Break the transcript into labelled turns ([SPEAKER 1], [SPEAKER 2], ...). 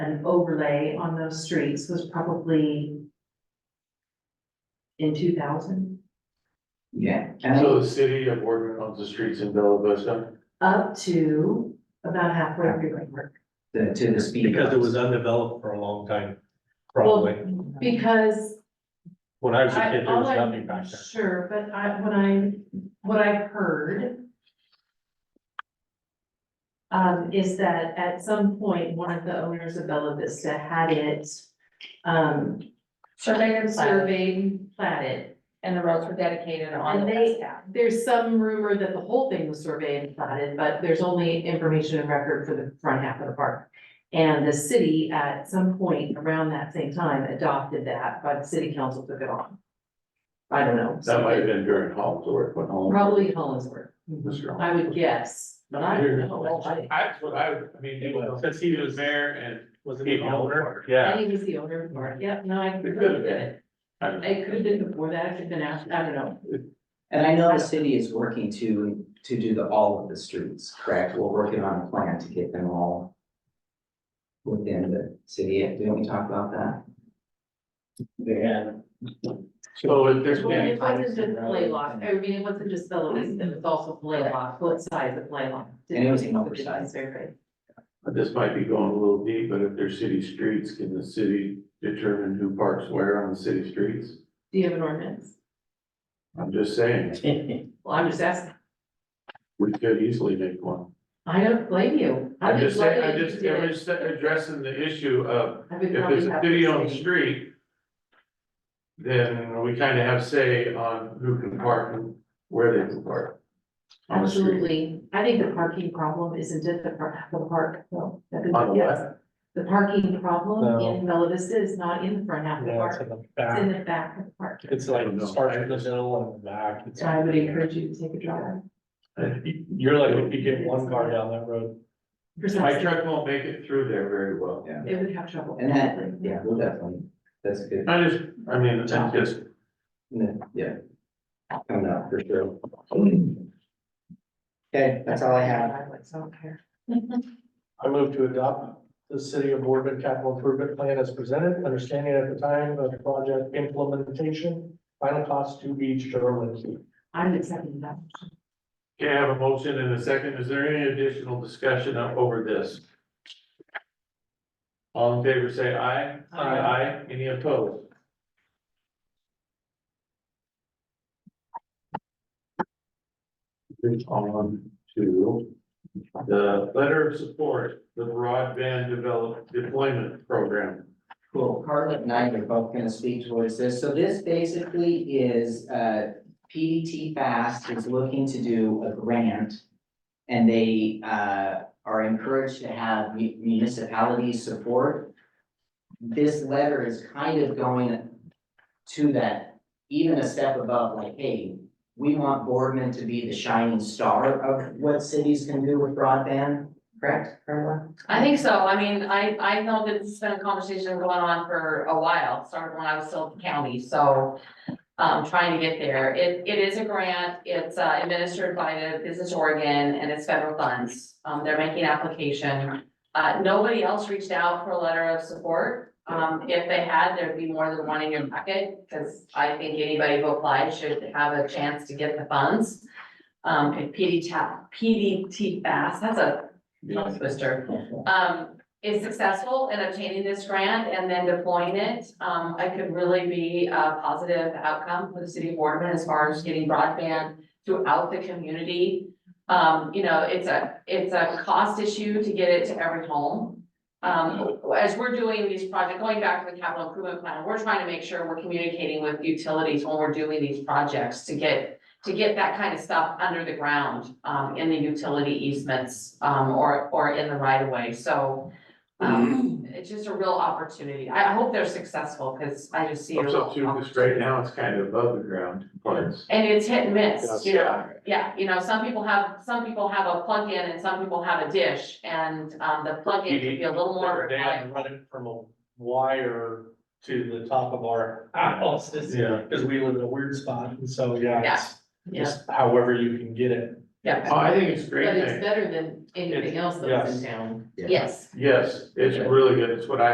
[SPEAKER 1] an overlay on those streets was probably in two thousand,
[SPEAKER 2] Yeah.
[SPEAKER 3] So the city of Boardman owns the streets in Bella Vista?
[SPEAKER 1] up to about halfway through my work.
[SPEAKER 2] The, to the speed.
[SPEAKER 4] Because it was undeveloped for a long time,
[SPEAKER 1] Well,
[SPEAKER 4] probably.
[SPEAKER 1] Because
[SPEAKER 4] When I was a
[SPEAKER 1] I-
[SPEAKER 4] kid, there
[SPEAKER 1] all
[SPEAKER 4] was
[SPEAKER 1] I'm
[SPEAKER 4] nothing back there.
[SPEAKER 1] Sure, but I, when I, what I've heard um, is that at some point, one of the owners of Bella Vista had it, um,
[SPEAKER 5] Surveyed and surveyed,
[SPEAKER 1] platted.
[SPEAKER 5] and the roads were dedicated on
[SPEAKER 1] And
[SPEAKER 5] the
[SPEAKER 1] they-
[SPEAKER 5] west half.
[SPEAKER 1] There's some rumor that the whole thing was surveyed and platted, but there's only information and record for the front half of the park. And the city at some point around that same time adopted that, but the city council took it on. I don't know.
[SPEAKER 3] That might have been during Holmes work, when Holmes.
[SPEAKER 1] Probably Hollinsworth.
[SPEAKER 3] Mr.
[SPEAKER 1] I would guess, but I don't know. I-
[SPEAKER 3] That's what I, would- I mean, he was,
[SPEAKER 4] Since he was there,
[SPEAKER 3] mayor and
[SPEAKER 4] was it
[SPEAKER 3] he
[SPEAKER 4] the
[SPEAKER 3] owned the
[SPEAKER 4] owner?
[SPEAKER 3] park.
[SPEAKER 4] Yeah.
[SPEAKER 1] And he was the owner of the bar, yep, no, I could
[SPEAKER 3] It
[SPEAKER 1] have
[SPEAKER 3] could have
[SPEAKER 1] been
[SPEAKER 3] been.
[SPEAKER 1] it.
[SPEAKER 3] I don't know.
[SPEAKER 1] It could have been before that, it could have been after, I don't know.
[SPEAKER 2] And I know the city is working to, to do the, all of the streets, correct? We're working on a plan to get them all within the city. Didn't we talk about that?
[SPEAKER 3] So if there's
[SPEAKER 1] Well,
[SPEAKER 3] any,
[SPEAKER 1] it wasn't just play lot, I mean, it wasn't just fellow, it was also play lot, both sides of play lot.
[SPEAKER 2] Mm-hmm. And it was an
[SPEAKER 1] Didn't- didn't
[SPEAKER 2] oversized.
[SPEAKER 1] survey.
[SPEAKER 3] this might be going a little deep, but if there's city streets, can the city determine who parks where on the city streets?
[SPEAKER 1] Do you have an ordinance?
[SPEAKER 3] I'm just saying,
[SPEAKER 1] Well, I'm just asking,
[SPEAKER 3] we could easily make one.
[SPEAKER 1] I don't blame you. I'd
[SPEAKER 3] I'm
[SPEAKER 1] be
[SPEAKER 3] just saying,
[SPEAKER 1] glad
[SPEAKER 3] I
[SPEAKER 1] you
[SPEAKER 3] just,
[SPEAKER 1] did
[SPEAKER 3] I'm
[SPEAKER 1] it.
[SPEAKER 3] just addressing the issue of
[SPEAKER 1] I would
[SPEAKER 3] if
[SPEAKER 1] probably
[SPEAKER 3] there's a
[SPEAKER 1] have
[SPEAKER 3] city
[SPEAKER 1] to
[SPEAKER 3] on the
[SPEAKER 1] say-
[SPEAKER 3] street. Then we kind of have say on who can park and where they can park. on the street.
[SPEAKER 1] Absolutely, I think the parking problem isn't at the park, the park, no. that is-
[SPEAKER 3] On the
[SPEAKER 1] yes.
[SPEAKER 3] left,
[SPEAKER 1] The parking problem
[SPEAKER 4] No.
[SPEAKER 1] in Bella Vista is not in the front half of the
[SPEAKER 4] Yeah, it's
[SPEAKER 1] park,
[SPEAKER 4] in the
[SPEAKER 1] it's in
[SPEAKER 4] back.
[SPEAKER 1] the back of the park.
[SPEAKER 4] It's like,
[SPEAKER 3] I don't know.
[SPEAKER 4] starts in the middle and the back. It's-
[SPEAKER 1] So I would encourage you to take a drive.
[SPEAKER 4] You're like, if you get one car down that road,
[SPEAKER 3] my
[SPEAKER 1] Precisely,
[SPEAKER 3] truck won't make it through there very well.
[SPEAKER 2] Yeah.
[SPEAKER 1] it would have trouble.
[SPEAKER 2] And that, yeah, we'll definitely, that's good.
[SPEAKER 3] I just, I mean, it's just,
[SPEAKER 2] Yeah. Coming up for sure. Okay, that's all I have.
[SPEAKER 1] So I don't care.
[SPEAKER 4] I move to adopt the city of Boardman capital improvement plan as presented, understanding at the time of project implementation, final cost to be determined.
[SPEAKER 1] I'm accepting that.
[SPEAKER 3] can I have a motion in a second? Is there any additional discussion over this? All in favor, say aye.
[SPEAKER 1] Aye.
[SPEAKER 3] Aye. Any opposed? Move on to the letter of support, the broadband develop deployment program.
[SPEAKER 2] Cool. Carla and I are both gonna speak towards this. So this basically is, uh, PDT Fast is looking to do a grant. And they, uh, are encouraged to have mu- municipalities support. This letter is kind of going to that, even a step above, like, hey, we want Boardman to be the shining star of what cities can do with broadband, correct, Carla?
[SPEAKER 5] I think so, I mean, I, I know that it's been a conversation going on for a while, started when I was still at the county, so. Um, trying to get there, it, it is a grant, it's uh, administered by the Business Oregon and it's federal funds, um, they're making application. Uh, nobody else reached out for a letter of support, um, if they had, there'd be more than one in your packet, because I think anybody who applied should have a chance to get the funds. Um, and PD tap, PDT fast, that's a tongue twister um, is successful in obtaining this grant and then deploying it, um, it could really be a positive outcome for the city of Boardman as far as getting broadband throughout the community. Um, you know, it's a, it's a cost issue to get it to every home. Um, as we're doing these projects, going back to the capital improvement plan, we're trying to make sure we're communicating with utilities when we're doing these projects to get to get that kind of stuff under the ground, um, in the utility easements, um, or, or in the right of way, so. Um,
[SPEAKER 3] Mm-hmm.
[SPEAKER 5] it's just a real opportunity, I hope they're successful, cause I just see. a
[SPEAKER 3] What's up
[SPEAKER 5] real
[SPEAKER 3] to this right
[SPEAKER 5] opportunity.
[SPEAKER 3] now, it's kind of above the ground parts.
[SPEAKER 5] And it's hit and miss, you know?
[SPEAKER 3] Yeah.
[SPEAKER 5] yeah, you know, some people have, some people have a plug-in and some people have a dish, and, um, the plug-in can be a little more.
[SPEAKER 4] They had to run it from a wire to the top of our house,
[SPEAKER 3] Yeah.
[SPEAKER 4] because we live in a weird spot, and so, yeah, it's
[SPEAKER 1] Yeah.
[SPEAKER 4] just however you can get it.
[SPEAKER 5] yeah,
[SPEAKER 3] Oh, I think it's a great
[SPEAKER 1] But it's
[SPEAKER 3] thing.
[SPEAKER 1] better than anything else that was in town.
[SPEAKER 5] yes.
[SPEAKER 3] Yes, it's really good. It's what I